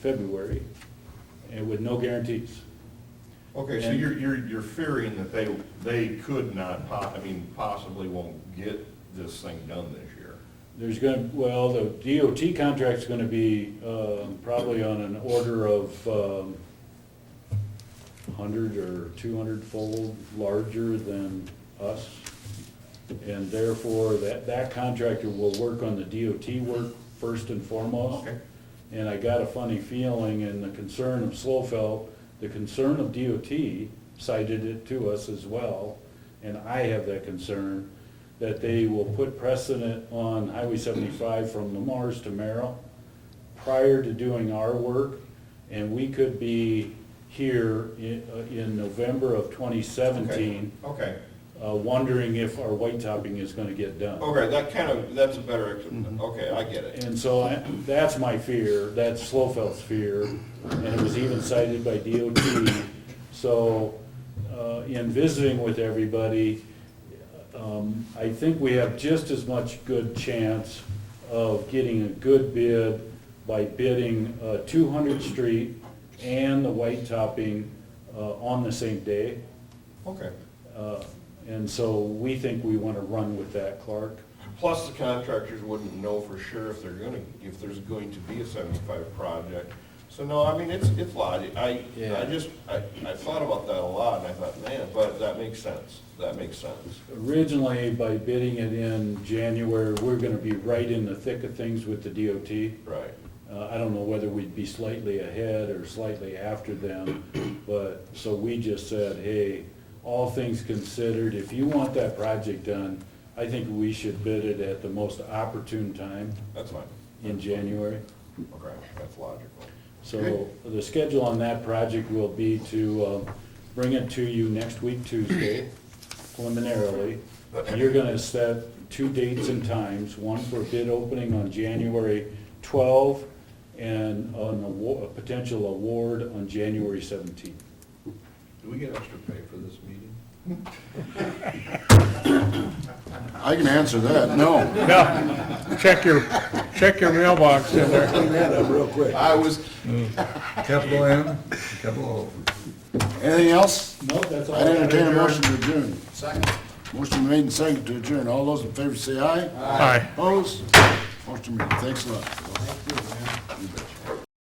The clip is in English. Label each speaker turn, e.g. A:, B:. A: February, and with no guarantees.
B: Okay, so
A: And-
B: you're, you're, you're fearing that they, they could not, po- I mean, possibly won't get this thing done this year.
A: There's gonna, well, the DOT contract's gonna be, um, probably on an order of, um, hundred or two hundred fold larger than us. And therefore, that, that contractor will work on the DOT work first and foremost.
B: Okay.
A: And I got a funny feeling and the concern of Slofeld, the concern of DOT cited it to us as well, and I have that concern, that they will put precedent on Highway seventy-five from Lamar's to Merrill prior to doing our work, and we could be here in, uh, in November of twenty seventeen,
B: Okay,
A: uh, wondering if our white topping is gonna get done.
B: okay, that kind of, that's a better, ex- okay, I get it.
A: And so I- that's my fear, that's Slofeld's fear, and it was even cited by DOT. So uh, in visiting with everybody, um, I think we have just as much good chance of getting a good bid by bidding uh, 200 Street and the white topping uh, on the same day.
B: Okay.
A: Uh, And so we think we want to run with that, Clark.
B: Plus, the contractors wouldn't know for sure if they're gonna, if there's going to be a seventy-five project. So no, I mean, it's, it's logic. I, I
A: Yeah.
B: just, I, I thought about that a lot and I thought, man, but that makes sense. That makes sense.
A: Originally, by bidding it in January, we're gonna be right in the thick of things with the DOT.
B: Right.
A: Uh, I don't know whether we'd be slightly ahead or slightly after them, but, so we just said, hey, all things considered, if you want that project done, I think we should bid it at the most opportune time
B: That's fine.
A: in January.
B: Okay, that's logical.
A: So the schedule on that project will be to uh, bring it to you next week, Tuesday, preliminarily. You're gonna set two dates and times, one for bid opening on January 12 and on a wa- a potential award on January 17.
B: Do we get extra pay for this meeting?
C: I can answer that, no.
D: Yeah, check your, check your mailbox in there.
C: Clean that up real quick.
B: I was,
E: Capital M, capital O.
C: Anything else?
A: No, that's all.
C: I entertain a motion to adjourn. Second. Motion made and seconded to adjourn. All those in favor say aye.
D: Aye.
C: Opposed? Motion made. Thanks a lot.